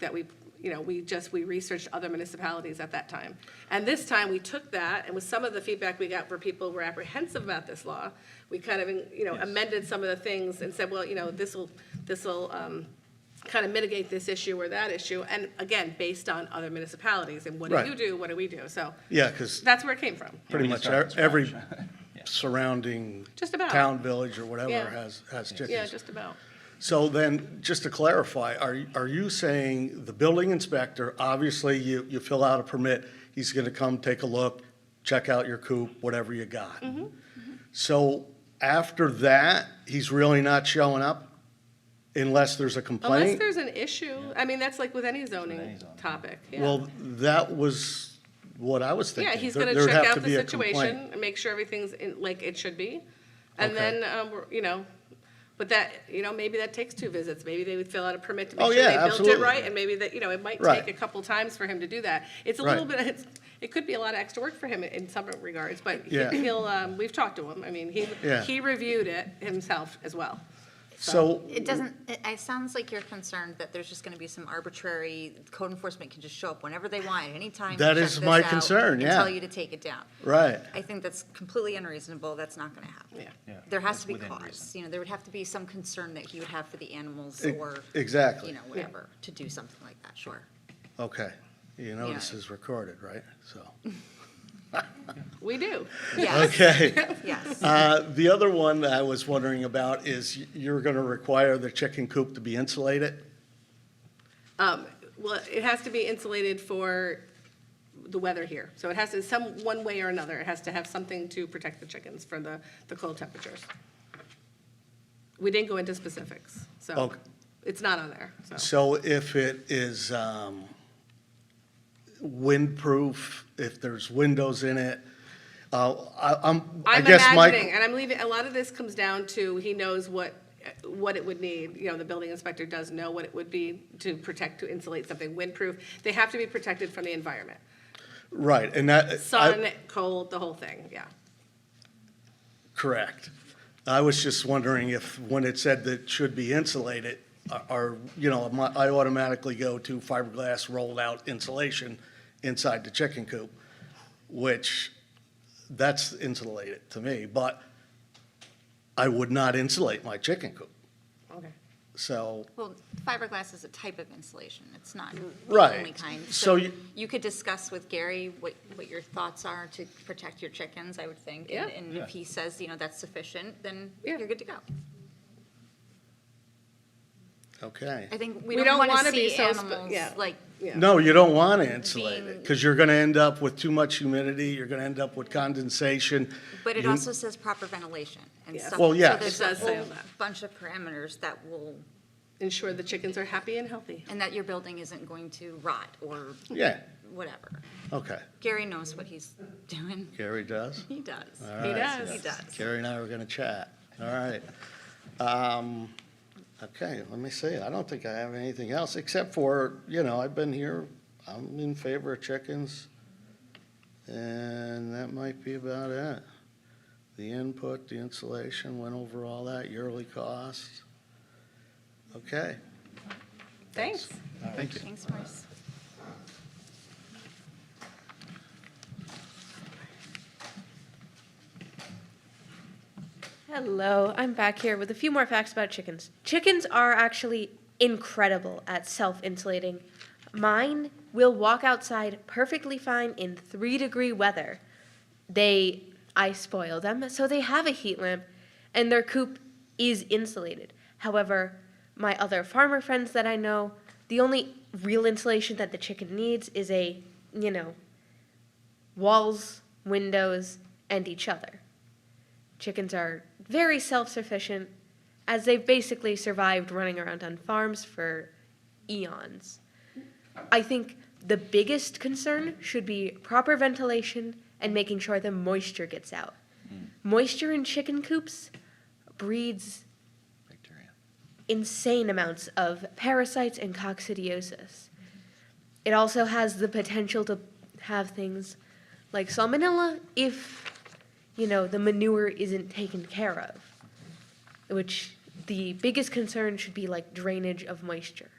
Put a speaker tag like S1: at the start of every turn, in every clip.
S1: that we, you know, we just, we researched other municipalities at that time. And this time, we took that, and with some of the feedback we got where people were apprehensive about this law, we kind of, you know, amended some of the things and said, well, you know, this will, this will um, kind of mitigate this issue or that issue, and again, based on other municipalities, and what do
S2: Right.
S1: you do, what do we do? So
S2: Yeah, because
S1: that's where it came from.
S2: pretty
S3: we
S2: much
S3: just start
S2: e-
S3: from
S2: every
S3: scratch.
S2: surrounding
S1: Just about.
S2: town, village, or whatever
S1: Yeah.
S2: has, has
S1: Yeah,
S2: chickens.
S1: just about.
S2: So then, just to clarify, are, y- are you saying the building inspector, obviously, you, you fill out a permit, he's gonna come take a look, check out your coop, whatever you got?
S1: Mm-hmm.
S2: So after that, he's really not showing up unless there's a
S1: Unless
S2: complaint?
S1: there's an issue, I mean, that's like with any zoning
S3: any zoning.
S1: topic, yeah.
S2: Well, that was what I was thinking.
S1: Yeah, he's
S2: There-
S1: gonna
S2: there'd
S1: check
S2: have
S1: out
S2: to
S1: the
S2: be a complaint.
S1: situation and make sure everything's in, like it should be. And
S2: Okay.
S1: then, um, we're- you know, but that, you know, maybe that takes two visits. Maybe they would fill out a permit to
S2: Oh,
S1: make sure
S2: yeah,
S1: they built it
S2: absolutely.
S1: right. And maybe that, you know, it might
S2: Right.
S1: take a couple times for him to do that. It's a little
S2: Right.
S1: bit, it's, it could be a lot of extra work for him in some regards, but he-
S2: Yeah.
S1: he'll, um, we've talked to him. I mean, he,
S2: Yeah.
S1: he reviewed it himself as well.
S2: So
S4: It doesn't, it, it sounds like you're concerned that there's just gonna be some arbitrary, code enforcement can just show up whenever they want, at any time.
S2: That
S4: check
S2: is
S4: this
S2: my
S4: out,
S2: concern,
S4: and
S2: yeah.
S4: tell you to take it down.
S2: Right.
S4: I think that's completely unreasonable, that's not gonna happen.
S1: Yeah.
S3: Yeah,
S4: There has
S3: that's
S4: to be
S3: within
S4: cause,
S3: reason.
S4: you know, there would have to be some concern that he would have for the animals
S2: E-
S4: or.
S2: exactly.
S4: You know, whatever, to do something like that, sure.
S2: Okay, you know this
S4: Yeah.
S2: is recorded, right? So,
S1: We do.
S4: Yes,
S2: okay.
S4: yes.
S2: Uh, The other one that I was wondering about is y- you're going to require the chicken coop to be insulated?
S1: Um, well, it has to be insulated for the weather here. So it has to, some, one way or another, it has to have something to protect the chickens from the, the cold temperatures. We didn't go into specifics, so
S2: Okay.
S1: it's not on there, so.
S2: So if it is um, windproof, if there's windows in it, uh, I- I'm, I
S1: I'm
S2: guess my.
S1: imagining, and I'm leaving, a lot of this comes down to, he knows what, what it would need. You know, the building inspector does know what it would be to protect, to insulate something windproof. They have to be protected from the environment.
S2: Right, and that. I-
S1: Sun, cold, the whole thing, yeah.
S2: Correct. I was just wondering if, when it said that it should be insulated, are- are, you know, my- I automatically go to fiberglass rolled-out insulation inside the chicken coop, which, that's insulated to me, but I would not insulate my chicken coop.
S1: Okay.
S2: So,
S4: Well, fiberglass is a type of insulation, it's not the
S2: Right.
S4: only kind.
S2: So you-
S4: You could discuss with Gary what, what your thoughts are to protect your chickens, I would think. and-
S1: Yeah.
S4: And if he says, you know, that's sufficient, then
S1: Yeah.
S4: you're good to go.
S2: okay.
S4: I think we
S1: We
S4: don't
S1: don't
S4: want
S1: wanna
S4: to
S1: be
S4: see
S1: so spe-
S4: animals,
S1: yeah.
S4: like,
S1: Yeah.
S2: No, you don't want to insulate it,
S4: Being-
S2: because you're going to end up with too much humidity, you're going to end up with condensation.
S4: but it
S2: You-
S4: also says proper ventilation and
S1: Yeah.
S4: stuff.
S2: Well,
S4: so
S2: yes.
S4: there's
S1: It
S4: a
S1: does say
S4: whole
S1: all that.
S4: Bunch of parameters that will,
S1: Ensure the chickens are happy and healthy.
S4: and that your building isn't going to rot or
S2: Yeah,
S4: whatever.
S2: okay.
S4: Gary knows what he's doing.
S2: Gary does?
S4: He does.
S1: He
S4: He
S1: does.
S4: does.
S2: Carrie and I were going to chat. All right. Um, Okay, let me see. I don't think I have anything else, except for, you know, I've been here, I'm in favor of chickens, and that might be about it. The input, the insulation, went over all that, yearly cost. Okay.
S1: Thanks.
S3: Thank you.
S4: Thanks, Maurice.
S5: Hello, I'm back here with a few more facts about chickens. Chickens are actually incredible at self insulating. Mine will walk outside perfectly fine in three degree weather. They, I spoil them, so they have a heat lamp and their coop is insulated. However, my other farmer friends that I know, the only real insulation that the chicken needs is a, you know, walls, windows, and each other. Chickens are very self sufficient, as they've basically survived running around on farms for eons. I think the biggest concern should be proper ventilation and making sure the moisture gets out. Moisture in chicken coops breeds
S3: Victoria.
S5: insane amounts of parasites and coccidiosis. It also has the potential to have things like salmonella if, you know, the manure isn't taken care of, which the biggest concern should be like drainage of moisture.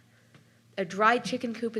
S5: A dry chicken coop is